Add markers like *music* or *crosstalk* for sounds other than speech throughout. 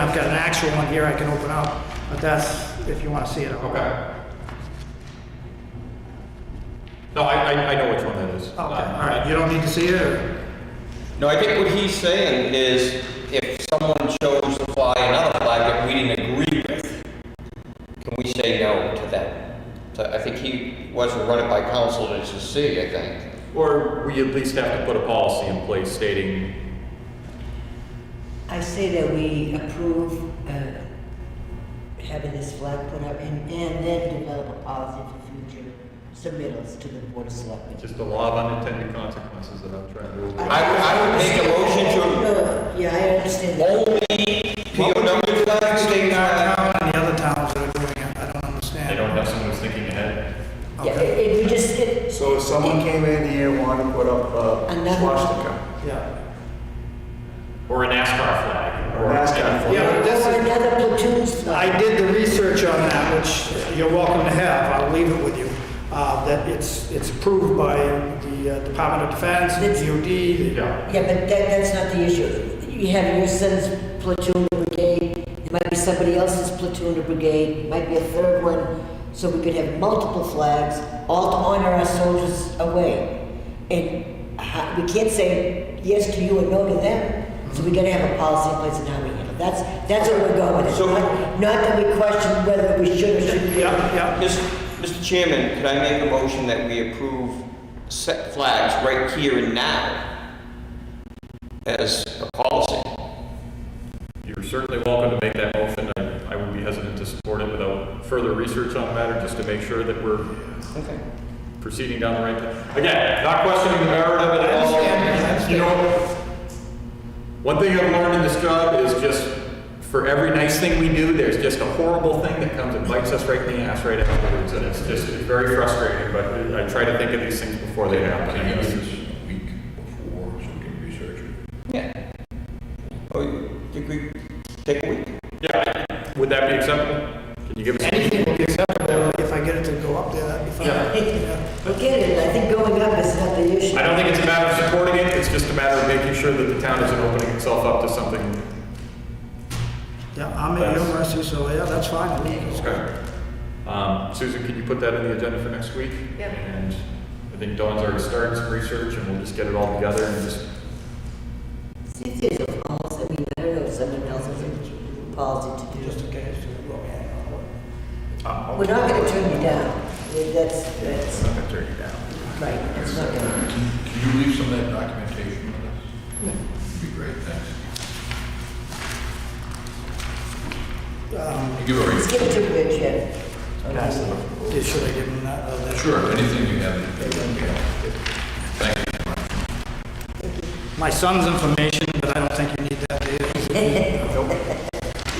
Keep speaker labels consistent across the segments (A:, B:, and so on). A: I've got an actual one here I can open up, but that's, if you wanna see it.
B: Okay. No, I, I, I know which one that is.
A: Okay, all right, you don't need to see it, or?
C: No, I think what he's saying is if someone chose to fly another flag that we didn't agree with, can we say no to them? So I think he wants to run it by council to just see, I think.
B: Or we at least have to put a policy in place stating,
D: I say that we approve uh, having this flag put up and and then develop a policy for future submittals to the Board of Selectmen.
B: just the law of unintended consequences that I'm trying to avoid.
C: I would- I would make a motion to-
D: No, Yeah, I understand that.
C: Only POW flags, state
A: In our
C: flags.
A: town and the other towns that are doing it, I don't understand.
B: They don't have someone who's thinking ahead.
D: Yeah,
A: Okay,
D: it- it- we just get
E: So if someone came in here and wanted to put up a
D: Another-
E: swastika,
A: yeah.
B: Or a NASCAR flag.
E: or a NASCAR flag,
A: Yeah, but this
D: or
A: is,
D: another platoon's flag.
A: I did the research on that, which you're welcome to have, I'll leave it with you. Uh, that it's, it's approved by the uh, Department of Defense,
D: It's-
A: the DOD, the-
B: Yeah,
D: Yeah, but that, that's not the issue. You have your son's platoon or brigade, it might be somebody else's platoon or brigade, it might be a third one, so we could have multiple flags, all to honor our soldiers away. And ho- we can't say yes to you and no to them, so we gotta have a policy in place on how we handle. it. That's, that's where we're going with it,
C: So-
D: not, not that we question whether we should or shouldn't.
A: yeah, yeah.
C: Mis- Mr. Chairman, could I make a motion that we approve set flags right here and now as a policy?
B: you're certainly welcome to make that motion. I, I would be hesitant to support it without further research on the matter, just to make sure that we're
C: Okay.
B: proceeding down the right path. Again, not questioning the merit of it at all. You know, one thing I've learned in this job is just for every nice thing we do, there's just a horrible thing that comes and bites us right in the ass right afterwards. And it's just it's very frustrating, but I try to think of these things before they happen. I
F: Can you do
B: guess.
F: this a week before so we can research it?
C: Yeah. Oh, you think we take a week?
B: Yeah, would that be acceptable? Can you give us?
A: Anything will be acceptable if I get it to go up there, that'd be fine.
D: *laughs*
B: Yeah.
A: Yeah.
D: We get it, I think going up is not the issue.
B: I don't think it's a matter of supporting it, it's just a matter of making sure that the town isn't opening itself up to something
A: Yeah, I'm at your mercy, so yeah, that's fine. with me.
B: Okay. Um, Susan, can you put that in the agenda for next week? Yeah. And I think Dawn's already started some research and we'll just get it all together and just,
D: See if there's a policy, I mean, I don't know if someone else has a policy to do.
A: Just in case, uh, well, yeah, well,
D: We're not gonna turn you down. That's, that's,
E: I'm gonna turn you down.
D: right, that's not gonna.
F: Can you leave some of that documentation with us? That'd be great, thanks.
A: Um,
F: You Give a
D: Let's
F: reason.
D: give it to Rich, yeah.
A: that's the- did- Should I give him that? uh, that-
F: Sure, anything you have. Thank you.
A: My son's information, but I don't think you need that, do you?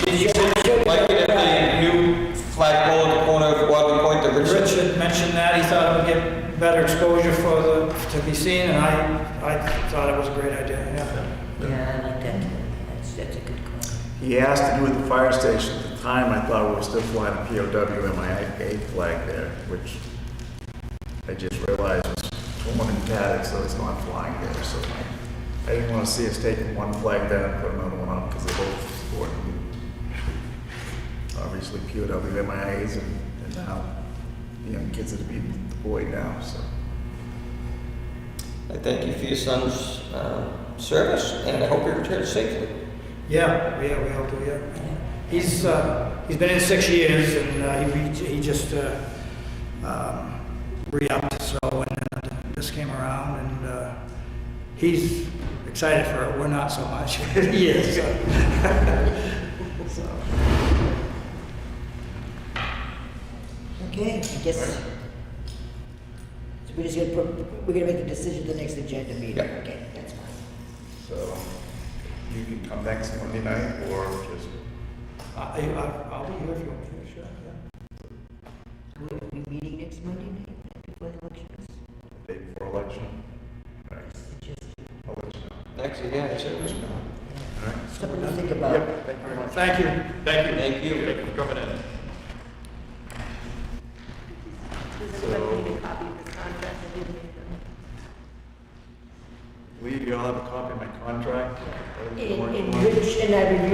C: Did you say you'd like it at the new flagpole at the corner of Guadalupe Point, the Richard?
A: Richard mentioned that, he thought it would get better exposure for the, to be seen, and I, I thought it was a great idea, yeah.
D: Yeah, I like that. That's, that's a good call.
E: He asked to do with the fire station. At the time, I thought we were still flying a POW MIA flag there, which I just realized was torn and tattered, so it's not flying there. So I didn't want to see us taking one flag down and put another one up because they're both supporting. Obviously, POW MIAs and, and now the young kids that are being deployed now, so.
C: I thank you for your son's um, service, and I hope he returns safely.
A: Yeah, yeah, we all do, yeah. He's, uh, he's been in six years, and uh, he, re- he just, uh, um, re-upped, so, and uh, this came around, and, uh, he's excited for it, we're not so much. He *laughs* is, so.
D: Okay, I guess. So we're just gonna put, we're gonna make the decision at the next agenda meeting.
C: Yeah.
D: Okay, that's fine.
E: So you can come next Monday night or just
A: I, I- I'll be here if you want me to, sure, yeah.
D: We'll be meeting next Monday night before the elections.
E: the day before election? Election.
C: Actually, yeah, it's service.
D: Something to think about.
E: Thank you very much.
A: Thank you.
B: thank you.
C: Thank you.
B: Thank you for coming in.
G: Does anyone need a copy of this contract? I didn't make them.
E: Lee, you all have a copy of my contract?
D: And, and Rich and I reviewed